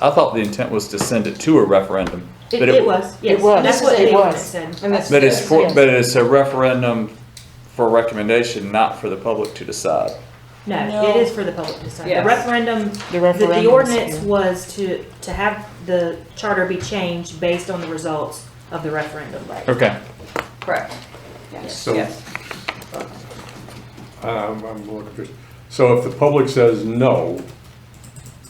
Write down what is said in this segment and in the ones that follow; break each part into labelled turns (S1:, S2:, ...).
S1: I thought the intent was to send it to a referendum.
S2: It,
S1: but
S2: it was, yes.
S3: It was.
S2: That's what
S3: It
S2: the ordinance
S3: was.
S2: said.
S3: And that's-
S1: But it's for,
S3: Yes.
S1: but it's a referendum for recommendation, not for the public to decide.
S2: No,
S3: No.
S2: it is for the public to decide. The
S3: Yes.
S2: referendum,
S3: The
S2: the- the
S3: referendum.
S2: ordinance was to, to have the charter be changed based on the results of the referendum.
S1: Okay.
S3: Correct. Yes,
S4: So-
S3: yes.
S4: Um, I'm looking for, so if the public says no,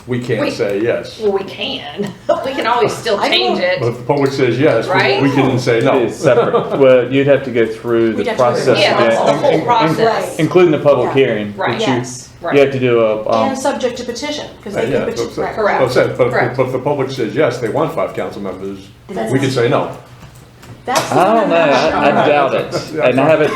S4: we
S5: We-
S4: can't say yes.
S5: Well, we can. We can always still change
S4: But
S5: it.
S4: if the public says yes,
S5: Right?
S4: we- we can say no.
S1: It's separate. Well, you'd have to go through
S2: We'd
S1: the
S2: have to go
S1: process.
S2: through-
S5: Yeah,
S1: again,
S5: that's the
S1: in-
S5: whole
S1: in-
S5: process.
S1: Including the public
S6: Yeah.
S1: hearing. which
S5: Right.
S1: you-
S6: Yes.
S1: You
S5: Right.
S1: have to do a, um,
S6: And subject to petition, because they
S4: Yeah,
S6: can
S4: that's
S6: petition.
S4: what I'm saying.
S5: Correct.
S4: That's what I'm saying. But if-
S5: Correct.
S4: but if the public says yes, they want five council members,
S6: That's-
S4: we can say no.
S6: That's the
S1: I don't know, I I
S6: one
S1: doubt it. And I haven't,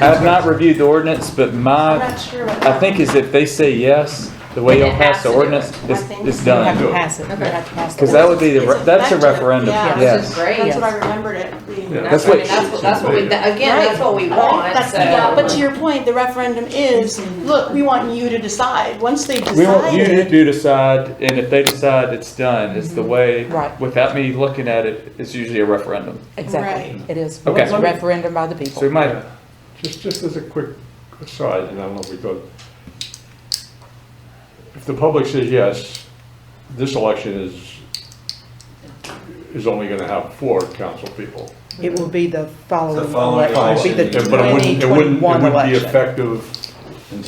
S1: I have not reviewed the ordinance, but
S6: I'm
S1: my,
S6: not sure about.
S1: Uh, I think is if they say yes, the way
S5: Then it
S1: y'all pass the
S5: has to do it.
S1: ordinance,
S6: I
S1: it's,
S6: think
S1: it's
S6: you
S3: You have
S1: done.
S3: to pass it. You
S5: Okay.
S3: have to pass the
S1: Because that would be, the
S6: It's
S1: re- that's a
S6: effective,
S1: referendum,
S6: yeah.
S5: This is
S1: yes.
S5: great.
S6: That's
S5: That's
S6: what I remembered it being.
S4: Yeah.
S1: That's
S5: what,
S1: what-
S5: that's what- that's what we, that- again, that's what we want,
S6: That's-
S5: so.
S6: yeah, But to your point, the referendum is, look, we want you to decide. Once they
S1: We want you to
S6: decide,
S1: do decide, and if they decide, it's done, is the way,
S3: Right.
S1: without me looking at it, it's usually a referendum.
S3: Exactly.
S6: Right.
S3: It is,
S1: Okay.
S3: it's a referendum by the people.
S1: So we might,
S4: Yeah. Just, just as a quick aside, and I don't know if we go, if the public says yes, this election is, is only gonna have four council people.
S7: It will be the following
S8: The following
S7: election, it will be
S4: Yeah,
S7: the
S4: But it wouldn't, it wouldn't, it
S7: 2021
S4: wouldn't be
S7: election.
S4: effective,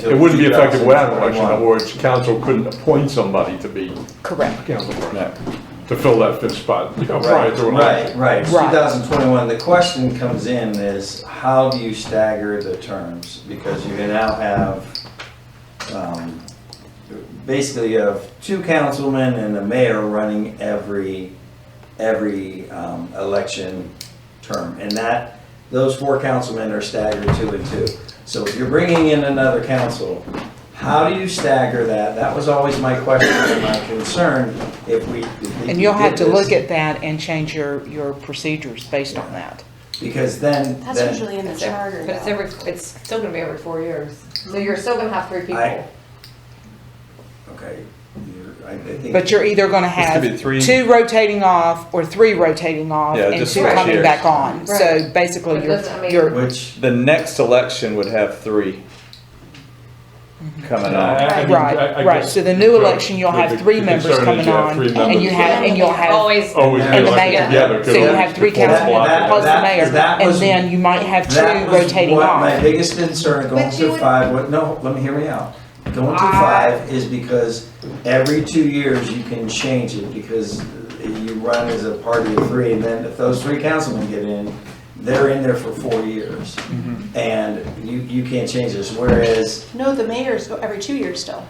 S4: it wouldn't be effective without an election, in other
S8: or
S4: words, council couldn't appoint somebody to be
S3: Correct.
S4: council person,
S1: no.
S4: to fill that fifth spot, you know, prior
S8: Right,
S4: to an
S8: right,
S4: election.
S8: right.
S3: Right.
S8: 2021, the question comes in is, how do you stagger the terms? Because you can now have, um, basically you have two councilmen and a mayor running every, every um, election term. And that, those four councilmen are staggered two and two. So if you're bringing in another council, how do you stagger that? That was always my question and my concern if we. if we
S3: And you'll have to
S8: did this.
S3: look at that and change your, your procedures based on that.
S8: Because then,
S6: that's
S8: then
S6: usually in the
S5: It's every-
S6: charter.
S5: But it's
S6: though.
S5: every, it's still gonna be every four years, so you're still gonna have three
S8: I-
S5: people.
S8: okay, you're- I, I think.
S3: But you're either gonna have
S1: be three-
S3: two rotating off or three rotating off
S1: Yeah,
S3: and
S1: just
S3: two
S1: switch
S3: coming
S1: years.
S3: back on. So
S5: Right.
S3: basically,
S5: But
S3: you're,
S5: doesn't- I mean-
S3: you're,
S8: Which,
S1: The next election would have three coming on.
S4: I- I mean, I- I
S3: right, right.
S4: guess
S3: So the new
S4: the-
S3: election, you'll have
S4: the-
S3: three
S4: the
S3: members
S4: concern is
S3: coming
S4: you have
S3: on
S4: three
S3: and you
S4: members.
S3: have, and you'll have,
S5: Always.
S4: Always be
S3: and the
S4: elected
S3: mayor.
S4: together, 'cause
S3: So you
S4: that's
S3: have three
S4: the fourth
S3: councilmen
S4: block.
S8: That-
S3: plus the
S8: that-
S3: mayor.
S8: that
S3: And
S8: was-
S3: then you might have
S8: that
S3: two
S8: was
S3: rotating
S8: what my
S3: off.
S8: biggest concern going
S5: But you
S8: to
S5: would-
S8: five, what, no, let me hear me out. Going to five is because every two years you can change it because you run as a party of three and then if those three councilmen get in, they're in there for four years.
S3: Mm-hmm.
S8: And you, you can't change this, whereas
S6: No, the mayor's go every two years still.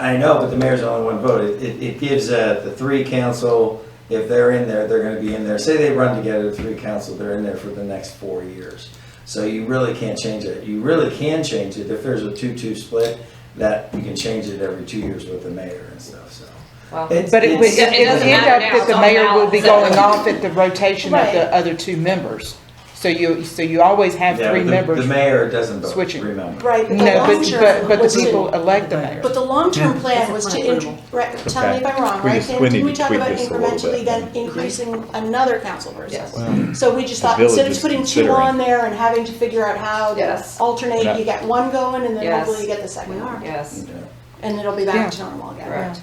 S8: I know, but the mayor's only one vote. It- It, it gives uh, the three council, if they're in there, they're gonna be in there. Say they run together, the three council, they're in there for the next four years. So you really can't change it. You really can change it if there's a two-two split, that you can change it every two years with the mayor and stuff, so.
S5: Well,
S8: It's-
S3: But it would,
S8: it's-
S3: it
S5: it
S3: would
S5: doesn't
S3: end
S5: matter
S3: up
S5: now,
S3: that
S5: it's
S3: the
S5: on
S3: mayor
S5: ballot,
S3: will be
S5: so-
S3: going off at the rotation of
S6: Right.
S3: the other two members. So you, so you always have
S8: Yeah,
S3: three
S8: the-
S3: members.
S8: The mayor doesn't vote,
S3: switching.
S8: remember.
S6: Right. but the
S3: No, but,
S6: long-term
S3: but, but
S6: was
S3: the
S6: to-
S3: people elect the mayor.
S6: But the long-term plan
S2: It's
S6: was to,
S2: upon
S6: in-
S2: approval.
S6: right, tell me if I'm wrong,
S1: Mm. We
S6: right?
S1: just-
S6: Sam?
S1: we
S6: Didn't
S1: need
S6: we
S1: to
S6: talk
S1: tweak
S6: about
S1: this a little
S6: incrementally
S1: bit.
S6: then increasing another council person?
S5: Yes.
S6: So we just
S1: The
S6: thought, instead
S1: village
S6: of
S1: is
S6: putting two
S1: considering.
S6: on there and having to figure out how to
S5: Yes.
S6: alternate,
S1: Yeah.
S6: you get one going and then
S5: Yes.
S6: hopefully you get the second one.
S5: Yes,
S6: And it'll be back to normal again.
S5: correct.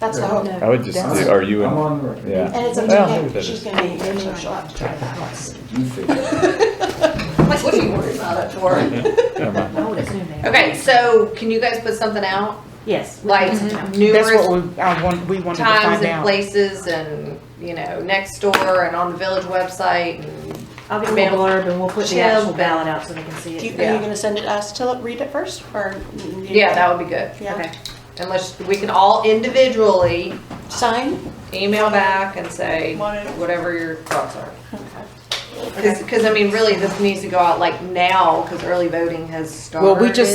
S6: That's the hope.
S1: I would just, do, are you
S8: I'm
S1: in?
S8: on the record.
S1: Yeah.
S6: And it's up
S1: Well,
S6: to
S1: maybe that
S6: him, she's
S1: is-
S6: gonna be, so she'll have to try that house.
S8: You figure.
S5: I'm like, what are you worried about that for?
S2: I would assume they are.
S5: Okay, so can you guys put something out,
S2: Yes. we
S5: like
S2: can sometime.
S3: That's
S5: numerous
S3: what we, I want, we wanted to
S5: times
S3: find
S5: and
S3: out.
S5: places and, you know, next door and on the village website and
S2: I'll get a little blurb and we'll put the
S5: Chill.
S2: actual ballot out so they can see
S6: Do you,
S2: it.
S6: are you
S5: Yeah.
S6: gonna send it us to read it first, or?
S5: Yeah, that would be good.
S6: Yeah,
S2: Okay.
S5: Unless, we can all individually
S6: sign?
S5: email back and say
S6: Wanted-
S5: whatever your thoughts are.
S6: Okay.
S5: Cause, 'cause, I mean, really, this needs to go out like now, cause early voting has started.
S3: Well, we just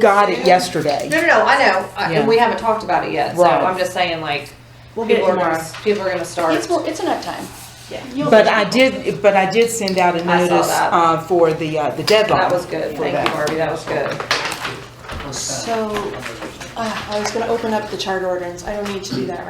S3: got it
S5: soon.
S3: yesterday.
S5: No, no, no, I know, I-
S3: Yeah.
S5: and we haven't talked about it yet, so
S3: Right.
S5: I'm just saying like,
S2: We'll get it
S5: people are
S2: tomorrow.
S5: gonna, people are gonna start.
S6: It's, it's enough time.
S2: Yeah.
S6: You'll-
S3: But I did, but I did send out a
S5: saw
S3: notice,
S5: that.
S3: uh, for the, uh, the deadline.
S5: That was good, thank you, Barbie, that was good.
S6: So, uh, I was gonna open up the chart ordinance, I don't need to do that